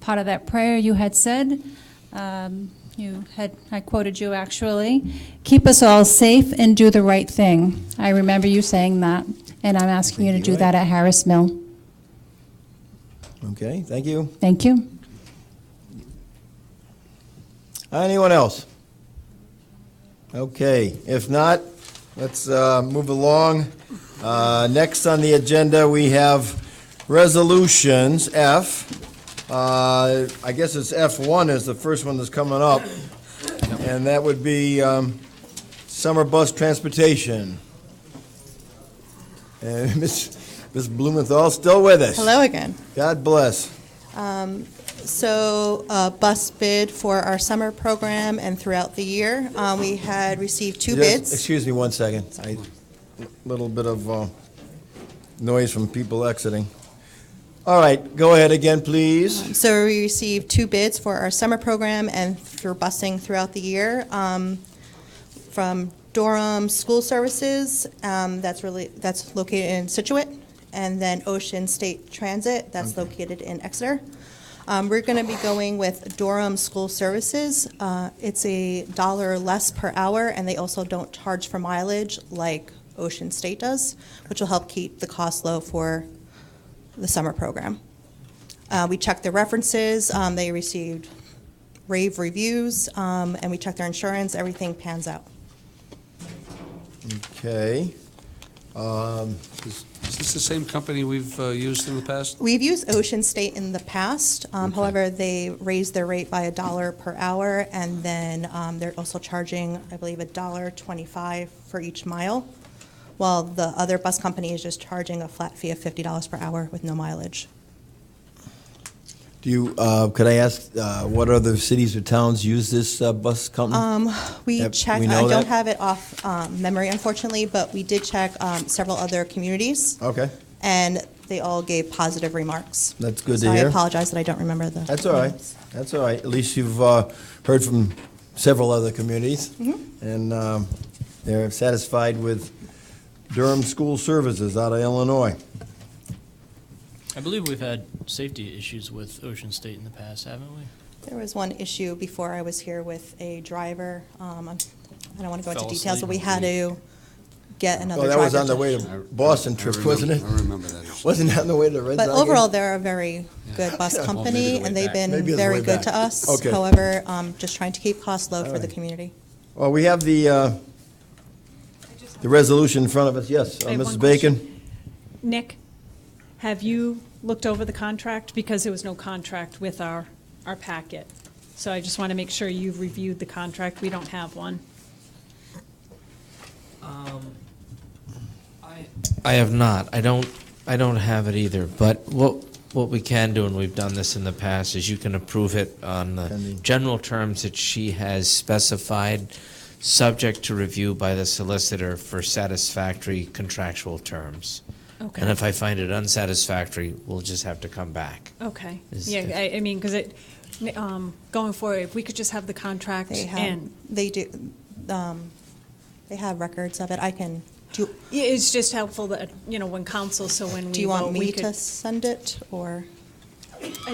part of that prayer you had said. Um, You had, I quoted you actually, "Keep us all safe and do the right thing." I remember you saying that, and I'm asking you to do that at Harris Mill. Okay, thank you. Thank you. Anyone else? Okay, if not, let's uh, move along. Uh, Next on the agenda, we have resolutions, F. Uh, I guess it's F1 is the first one that's coming up, and that would be um, summer bus transportation. And Ms. Ms. Blumenthal still with us. Hello again. Um, God bless. So, uh, bus bid for our summer program and throughout the year, uh, we had received two Just- bids. Excuse me one second. A little bit of uh, noise from people exiting. All right, go ahead again, please. So we received two bids for our summer program and for busing throughout the year um, from Durham School Services, um, that's really, that's located in Situate, and then Ocean State Transit, that's located in Exeter. Um, We're going to be going with Durham School Services. Uh, It's a dollar less per hour, and they also don't charge for mileage like Ocean State does, which will help keep the cost low for the summer program. Uh, We checked their references, um, they received rave reviews, um, and we checked their insurance, everything pans out. Okay. Um, Is this the same company we've uh, used in the past? We've used Ocean State in the past, um, Okay. however, they raised their rate by a dollar per hour, and then um, they're also charging, I believe, a dollar twenty-five for each mile, while the other bus company is just charging a flat fee of fifty dollars per hour with no mileage. Do you, uh, could I ask, uh, what other cities or towns use this uh, bus company? Um, We Yep, checked, we I know don't that. have it off um, memory unfortunately, but we did check um, several other communities. Okay, and they all gave positive remarks. that's good So to I hear. apologize that I don't remember the. That's all right. That's all right. At least you've uh, heard from several other communities. Mm-hmm. And um, they're satisfied with Durham School Services out of Illinois. I believe we've had safety issues with Ocean State in the past, haven't we? There was one issue before I was here with a driver. um, I'm- I don't want to go into Fell details, but we asleep. had to get another Well, driver. that was on the to- way to Uh, Boston trip, wasn't it? I remember that. Wasn't that on the way to Red But Sox game? overall, they're a very good bus Well, company, the and way they've back. been Maybe it's the very way good back. to us. Okay. However, um, just trying to keep costs low All for the right. community. Well, we have the, uh, the resolution in front of us, yes. Uh, I have one Mrs. Bacon? question. Nick, have you looked over the contract? Because there was no contract with our, our packet. So I just want to make sure you've reviewed the contract. We don't have one. Um, I have not. I don't. I don't have it either. But what what we can do, and we've done this in the past, is you can approve it on the Pending. general terms that she has specified, subject to review by the solicitor for satisfactory contractual terms. And Okay, if I find it unsatisfactory, we'll just have to come back. okay. Is- Yeah, I, I mean, because it, um, going forward, if we could just have the contract They have, and, they do, um, they have records of it. I can, do, Yeah, it's just helpful that, you know, when council, so when we do you want vote, we me could- to send it, or?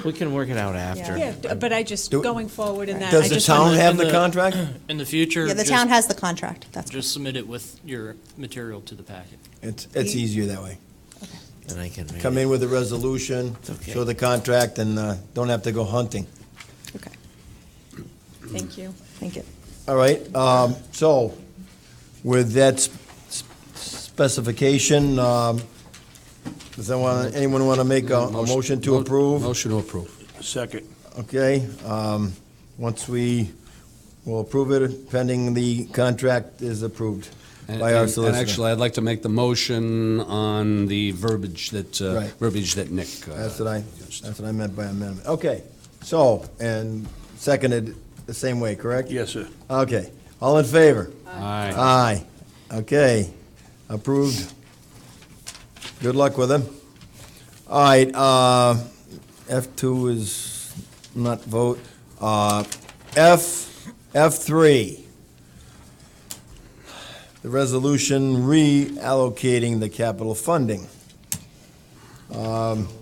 We can work it out after. Yeah, d- but I just, Do- going forward in that, I Does the just town want wanna- have the and the- contract? In the future, Yeah, the just- town has the contract, that's. Just submit it with your material to the packet. It's, it's You- easier that way. And I can read Come it. in with a resolution, okay. show the contract, and uh, don't have to go hunting. Okay, Thank you. thank you. All right, um, so with that s- s- specification, um, does anyone, anyone want to make a a motion to approve? Motion to approve. Second. Okay, um, once we will approve it, pending the contract is approved And- by our and- solicitor. And actually, I'd like to make the motion on the verbiage that, uh, Right. verbiage that Nick. uh, That's what I, used. that's what I meant by amendment. Okay, so, and seconded the same way, correct? Yes, sir. Okay, all in favor? Aye. Aye. Okay, approved. Good luck with him. All right, uh, F2 is not vote. Uh, F, F3. The resolution reallocating the capital funding. Um,